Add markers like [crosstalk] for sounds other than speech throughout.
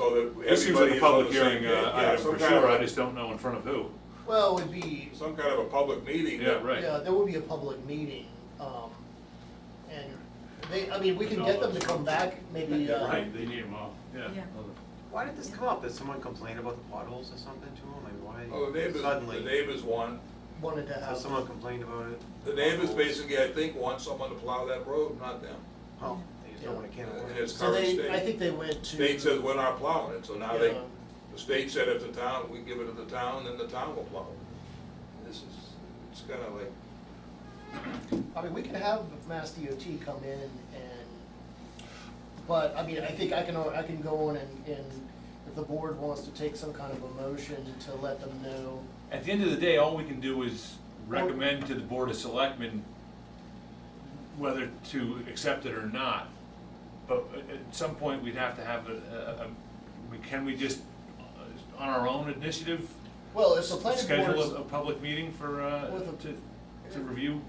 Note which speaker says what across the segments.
Speaker 1: so that
Speaker 2: This seems like
Speaker 1: everybody
Speaker 2: a
Speaker 1: is on
Speaker 2: public
Speaker 1: the same
Speaker 2: hearing
Speaker 1: page.
Speaker 2: uh,
Speaker 1: Yeah,
Speaker 2: item
Speaker 1: some
Speaker 2: for
Speaker 1: kind of
Speaker 2: sure, I
Speaker 1: a-
Speaker 2: just don't know in front of who.
Speaker 3: Well, it would be,
Speaker 1: Some kind of a public meeting.
Speaker 2: Yeah,
Speaker 1: that-
Speaker 2: right.
Speaker 3: yeah, there would be a public meeting, um, and they, I mean, we can get them to come back, maybe, uh,
Speaker 2: Right, they need them all, yeah.
Speaker 4: Yeah.
Speaker 5: Why did this come up? Did someone complain about the potholes or something to them? Like
Speaker 1: Oh, the
Speaker 5: why
Speaker 1: neighbors, the
Speaker 5: suddenly?
Speaker 1: neighbors want,
Speaker 3: wanted to
Speaker 5: So
Speaker 3: have.
Speaker 5: someone complained about it?
Speaker 1: the neighbors
Speaker 5: Potholes.
Speaker 1: basically, I think, want someone to plow that road, not them.
Speaker 5: Oh, they just don't want a can of
Speaker 1: And
Speaker 5: worms.
Speaker 1: it's
Speaker 3: So
Speaker 1: current
Speaker 3: they, I
Speaker 1: state.
Speaker 3: think they went to.
Speaker 1: State says we're not plowing it, so now they,
Speaker 3: Yeah.
Speaker 1: the state said if the town, we give it to the town, then the town will plow it. This is, it's kinda like,
Speaker 3: I mean, we could have Mass DOT come in and, but, I mean, I think I can, I can go on and, and if the board wants to take some kind of a motion to let them know.
Speaker 2: At the end of the day, all we can do is recommend to the Board of Selectmen whether to accept it or not. But at at some point, we'd have to have a, a- a- we- can we just, uh, on our own initiative,
Speaker 3: Well, if the planning
Speaker 2: schedule a, a
Speaker 3: board,
Speaker 2: public meeting for, uh,
Speaker 3: With a-
Speaker 2: to, to review?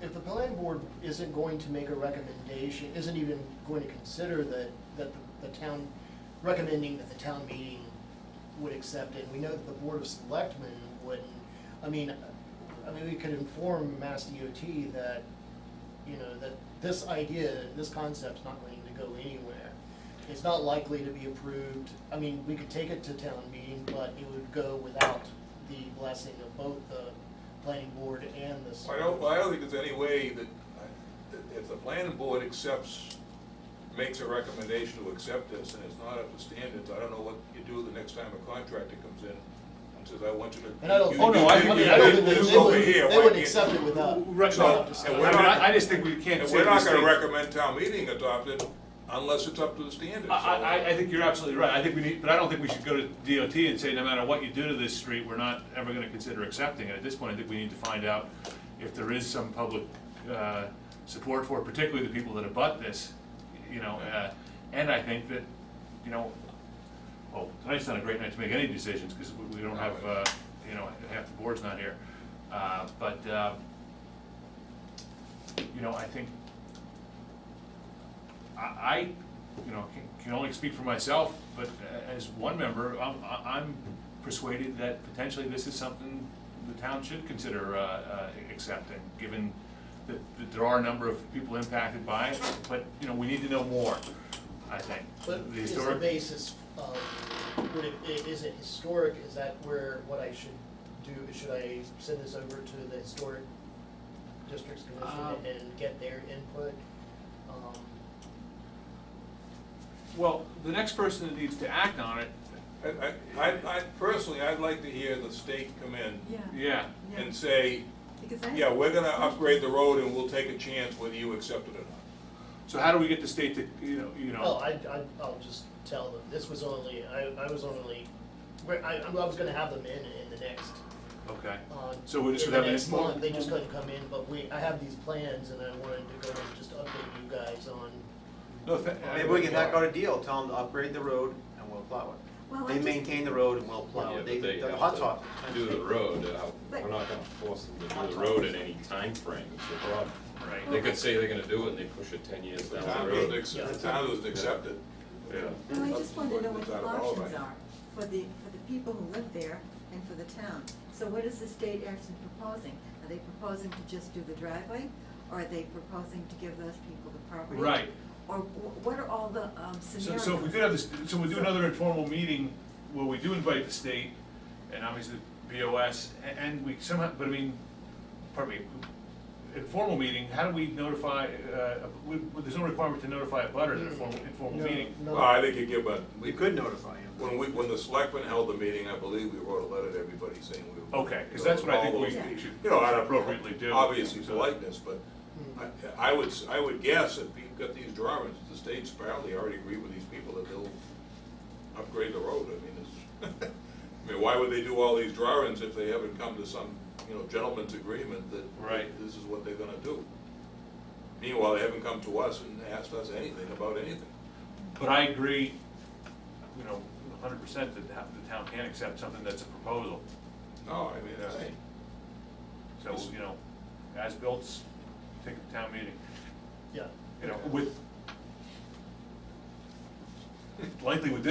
Speaker 3: if the planning board isn't going to make a recommendation, isn't even going to consider that, that the- the town, recommending that the town meeting would accept it, we know that the board of selectmen wouldn't, I mean, I mean, we could inform Mass DOT that you know, that this idea, this concept's not going to go anywhere. It's not likely to be approved. I mean, we could take it to town meeting, but it would go without the blessing of both the planning board and the.
Speaker 1: I don't, I don't think there's any way that, that if the planning board accepts, makes a recommendation to accept this, and it's not up to standards, I don't know what you do the next time a contractor comes in and says, I want you to.
Speaker 3: And I don't,
Speaker 1: you-
Speaker 3: oh, no, I, I
Speaker 1: you-
Speaker 3: mean,
Speaker 1: you
Speaker 3: I don't
Speaker 1: did
Speaker 3: think they,
Speaker 1: this
Speaker 3: they
Speaker 1: over
Speaker 3: would,
Speaker 1: here,
Speaker 3: they
Speaker 1: why
Speaker 3: would
Speaker 1: can't-
Speaker 3: accept it without.
Speaker 2: Right,
Speaker 1: So,
Speaker 2: no,
Speaker 1: and
Speaker 2: I
Speaker 1: we're
Speaker 2: mean,
Speaker 1: not-
Speaker 2: I I just think we can't
Speaker 1: And
Speaker 2: say
Speaker 1: we're not
Speaker 2: these
Speaker 1: gonna
Speaker 2: things-
Speaker 1: recommend town meeting adopt it unless it's up to the standards.
Speaker 2: I,
Speaker 1: so-
Speaker 2: I, I think you're absolutely right, I think we need, but I don't think we should go to DOT and say, no matter what you do to this street, we're not ever gonna consider accepting it. At this point, I think we need to find out if there is some public, uh, support for it, particularly the people that abut this, you know, uh, and I think that, you know, well, tonight's not a great night to make any decisions, because we, we don't have, uh, you know, half the board's not here. Uh, but, uh, you know, I think I, I, you know, can, can only speak for myself, but a- as one member, I'm, I- I'm persuaded that potentially this is something the town should consider, uh, uh, accepting, given that, that there are a number of people impacted by it, but, you know, we need to know more, I think.
Speaker 3: But
Speaker 2: The
Speaker 3: is the
Speaker 2: historic-
Speaker 3: basis of, would it, i- is it historic, is that where, what I should do, should I send this over to the historic districts
Speaker 2: Um,
Speaker 3: commission and get their input? Um,
Speaker 2: Well, the next person that needs to act on it,
Speaker 1: I, I- I, I personally, I'd like to hear the state come in
Speaker 4: Yeah.
Speaker 2: yeah,
Speaker 4: Yeah.
Speaker 1: and say,
Speaker 4: Because I.
Speaker 1: yeah, we're gonna upgrade the road and we'll take a chance whether you accept it or not.
Speaker 2: so how do we get the state to, you know, you know?
Speaker 3: Well, I, I, I'll just tell them, this was only, I, I was only, where, I, I was gonna have them in, in the next,
Speaker 2: Okay,
Speaker 3: uh,
Speaker 2: So we just
Speaker 3: in
Speaker 2: would have
Speaker 3: the
Speaker 2: an
Speaker 3: next
Speaker 2: inform-
Speaker 3: month, they just couldn't come in, but we, I have these plans and I wanted to go and just update you guys on
Speaker 2: no, uh, th- I-
Speaker 5: Maybe we can hack out a deal, tell them to upgrade the road and we'll plow
Speaker 4: Well,
Speaker 5: it.
Speaker 4: I
Speaker 5: They
Speaker 4: just-
Speaker 5: maintain the road and we'll plow it.
Speaker 6: Yeah, but
Speaker 5: They,
Speaker 6: they
Speaker 5: the
Speaker 6: have
Speaker 5: hot
Speaker 6: to
Speaker 5: top.
Speaker 6: Do the road, uh,
Speaker 4: But-
Speaker 6: we're not gonna force them to do the road in any time frame. is the problem.
Speaker 2: Right.
Speaker 6: They could say they're gonna do it and they push it ten years
Speaker 1: The
Speaker 6: down
Speaker 1: town
Speaker 6: the
Speaker 1: doesn't
Speaker 6: road.
Speaker 1: accept, the town doesn't accept it.
Speaker 2: Yeah.
Speaker 4: Well, I just want to know what the
Speaker 1: That's out of all of
Speaker 4: options
Speaker 1: it.
Speaker 4: are for the, for the people who live there and for the town. So what is the state actually proposing? Are they proposing to just do the driveway? Or are they proposing to give those people the property?
Speaker 2: Right.
Speaker 4: Or wh- what are all the um,
Speaker 2: So,
Speaker 4: scenarios?
Speaker 2: so if we could have this, so we do another informal meeting where we do invite the state and obviously BOS a- and we somehow, but I mean, pardon me, informal meeting, how do we notify, uh, we, there's no requirement to notify a butter at a formal, informal
Speaker 3: No,
Speaker 2: meeting.
Speaker 3: no.
Speaker 1: Well, I think you give a,
Speaker 5: We could notify them.
Speaker 1: when we, when the selectmen held the meeting, I believe we wrote a letter to everybody saying we were.
Speaker 2: Okay, 'cause that's what I think
Speaker 1: all
Speaker 2: we
Speaker 1: those-
Speaker 2: should-
Speaker 1: You know, out of
Speaker 2: appropriately do.
Speaker 1: Obviously politeness, but I, I would, s- I would guess if you've got these drawings, the state's apparently already agree with these people that they'll upgrade the road, I mean, it's, [laughs] I mean, why would they do all these drawings if they haven't come to some, you know, gentleman's agreement that
Speaker 2: Right.
Speaker 1: this is what they're gonna do? Meanwhile, they haven't come to us and asked us anything about anything.
Speaker 2: But I agree, you know, hundred percent that ha- the town can accept something that's a proposal.
Speaker 1: No, I mean, I,
Speaker 2: So, you know, as built's, take a town meeting,
Speaker 3: Yeah.
Speaker 2: you know, with, likely with this